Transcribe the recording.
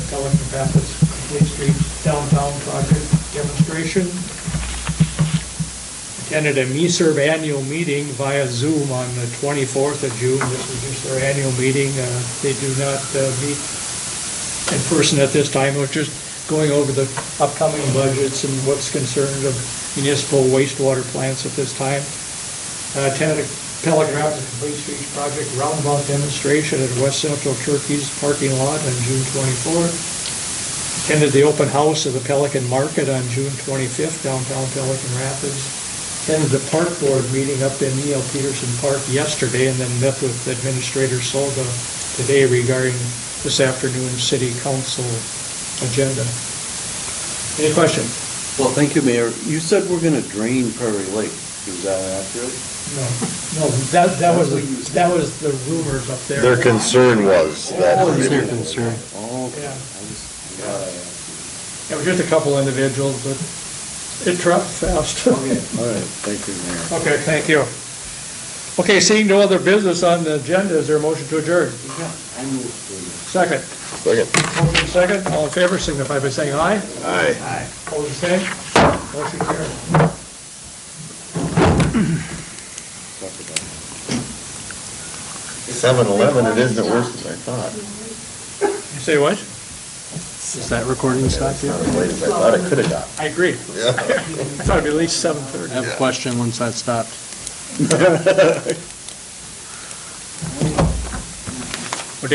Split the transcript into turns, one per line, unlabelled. Rapids Complete Streets Downtown Project Demonstration. Attended a MESERB annual meeting via Zoom on the 24th of June. This is just their annual meeting. Uh, They do not uh, meet in person at this time, we're just going over the upcoming budgets and what's concerned of municipal wastewater plants at this time. Uh, Attended a Pelican Rapids Complete Streets Project roundabout demonstration at West Central Turkey's parking lot on June 24th. Attended the open house of the Pelican Market on June 25th, downtown Pelican Rapids. Attended the park board meeting up in E.L. Peterson Park yesterday, and then met with Administrator Solga today regarding this afternoon's city council agenda. Any question?
Well, thank you, Mayor. You said we're gonna drain Prairie Lake. Is that accurate?
No, no, that, that was, that was the rumors up there.
Their concern was that.
their concern. Oh, okay.
Yeah.
I just- I'm glad I asked.
It was just a couple individuals, but it dropped fast.
Okay, all right, thank you, Mayor.
Okay, thank you. Okay, seeing no other business on the agenda, is there a motion to adjourn?
Yeah, I knew it was you.
Second.
Second.
Motion second, all in favor, signify by saying aye.
Aye.
Aye. Hold the same. Motion carried.
Talk about it.
Seven eleven, it is the worst than I thought.
You say what? Is that recording stopped
It's not as late as I thought it could have got.
I agree.
Yeah.
It's gotta be at least seven thirty.
I have a question once that stopped.